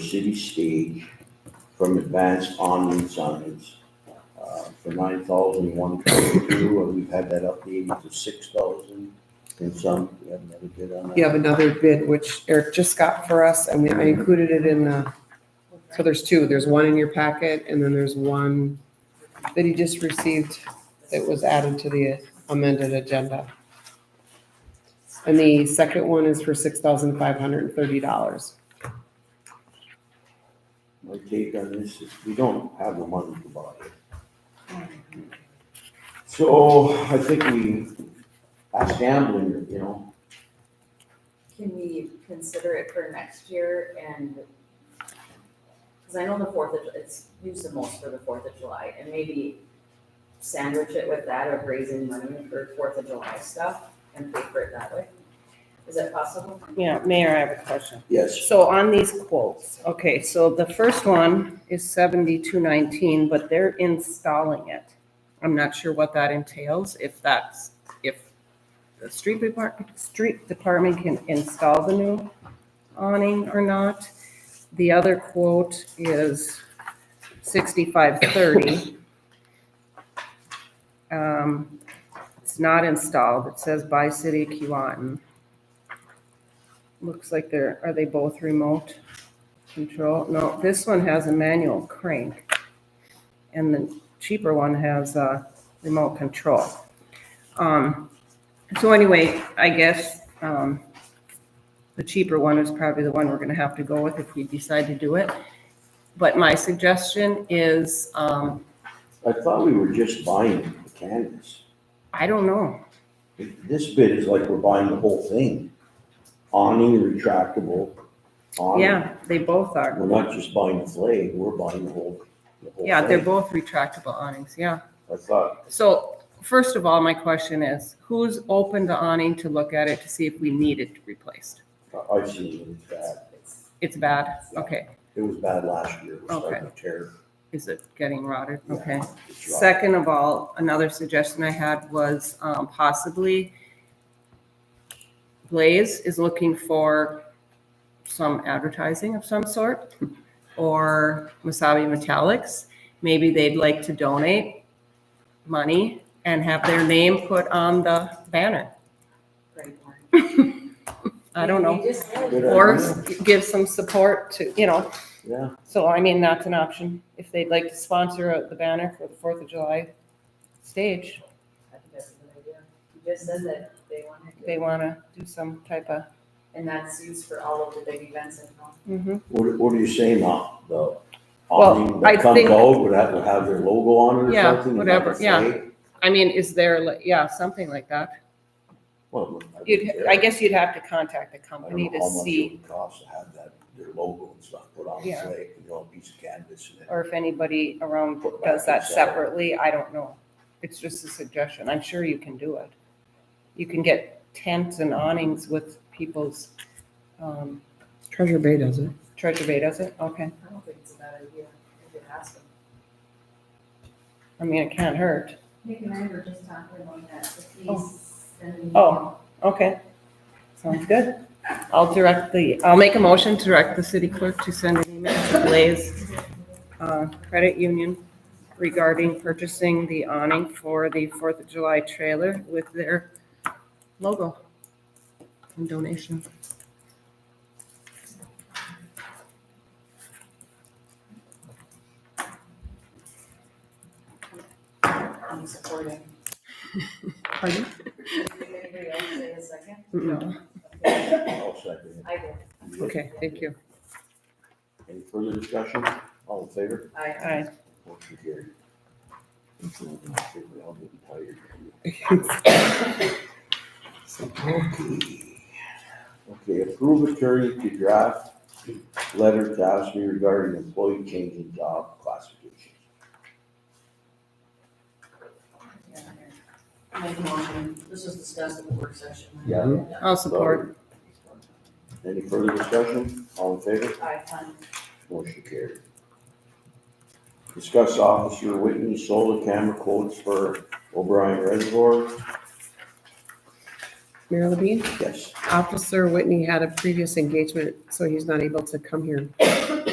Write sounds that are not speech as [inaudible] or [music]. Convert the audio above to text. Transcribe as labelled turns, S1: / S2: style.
S1: city stage from Advanced Omni Signs uh, for nine thousand one twenty-two, and we've had that updated to six thousand and some, we have another bid on that.
S2: You have another bid, which Eric just got for us, and we- I included it in the, so there's two, there's one in your packet, and then there's one that he just received that was added to the amended agenda. And the second one is for six thousand five hundred and thirty dollars.
S1: My take on this is we don't have the money to buy it. So I think we, that's gambling, you know,
S3: Can we consider it for next year and, because I know the Fourth of, it's used the most for the Fourth of July, and maybe sandwich it with that of raising money for Fourth of July stuff and pay for it that way. Is that possible?
S4: Yeah, Mayor, I have a question.
S1: yes,
S4: So on these quotes, okay, so the first one is seventy-two nineteen, but they're installing it. I'm not sure what that entails, if that's, if the street department, street department can install the new awning or not. The other quote is sixty-five thirty. Um, it's not installed, it says by city of Keewatin. Looks like they're, are they both remote control? No, this one has a manual crank. And the cheaper one has a remote control. Um, so anyway, I guess, um, the cheaper one is probably the one we're gonna have to go with if we decide to do it. But my suggestion is, um,
S1: I thought we were just buying the canvas.
S4: I don't know.
S1: This bid is like we're buying the whole thing. Awning, retractable, awning.
S4: Yeah, they both are.
S1: We're not just buying the flag, we're buying the whole, the whole
S4: Yeah, they're
S1: thing.
S4: both retractable awnings, yeah.
S1: I thought,
S4: So first of all, my question is, who's open to awning to look at it to see if we need it replaced?
S1: I- I've seen it was bad.
S4: It's bad, okay.
S1: It was bad last year. It was starting to tear.
S4: Is it getting rotted?
S1: Yeah,
S4: Okay.
S1: it's rotten.
S4: Second of all, another suggestion I had was um, possibly Blaze is looking for some advertising of some sort [laughs] or Masabi Metallics. Maybe they'd like to donate money and have their name put on the banner.
S3: Pretty boring.
S4: I don't know.
S3: We just said-
S1: Good
S4: or
S1: idea.
S4: give some support to, you know,
S1: Yeah,
S4: so I mean, that's an option. If they'd like to sponsor the banner for the Fourth of July stage,
S3: I think that's a good idea. You just said that they wanted
S4: they
S3: to,
S4: want to do some type of.
S3: and that's used for all of the big events in town.
S4: mm-hmm.
S1: what, what are you saying now? The
S4: Well,
S1: awning
S4: I
S1: that comes
S4: think-
S1: out would have, would have their logo on it or something?
S4: Yeah,
S1: and not
S4: whatever,
S1: the
S4: yeah.
S1: flag?
S4: I mean, is there, like yeah, something like that.
S1: Well, I wouldn't
S4: You'd,
S1: care.
S4: I guess you'd have to contact the
S1: I
S4: company
S1: don't know
S4: to
S1: how much it
S4: see,
S1: would cost to have that, their logo and stuff put on the
S4: Yeah.
S1: flag, you know, a piece of canvas and it.
S4: or if anybody around
S1: Put back
S4: does that
S1: inside.
S4: separately, I don't know. It's just a suggestion. I'm sure you can do it. You can get tents and awnings with people's, um,
S2: Treasure Bay does it.
S4: Treasure Bay does it? Okay.
S3: I don't think it's a bad idea if you ask them.
S4: I mean, it can't hurt.
S5: Nick and I were just talking about that, the
S4: Oh.
S5: fees and.
S4: Oh. Okay. Sounds good. I'll direct the, I'll make a motion to direct the city clerk to send an email to Blaze uh, Credit Union regarding purchasing the awning for the Fourth of July trailer with their logo and donation.
S3: I'm supporting.
S4: Pardon?
S3: Did anybody else say a second?
S4: No.
S3: Okay,
S1: I'll second
S3: I did.
S1: it.
S4: Okay, thank you.
S1: Any further discussion? All in favor?
S3: I,
S4: All right.
S1: Motion carried. I'll get tired. Okay. Okay, approve attorney to draft letter to ask me regarding employee change in job classification.
S3: Make a motion, this was discussed at the work session.
S1: Yeah.
S4: I'll support.
S1: Any further discussion? All in favor?
S3: I,
S1: Motion carried. Discuss Officer Whitney solar camera quotes for O'Brien Reservoir.
S2: Mayor Levine?
S1: Yes.
S2: Officer Whitney had a previous engagement, so he's not able to come here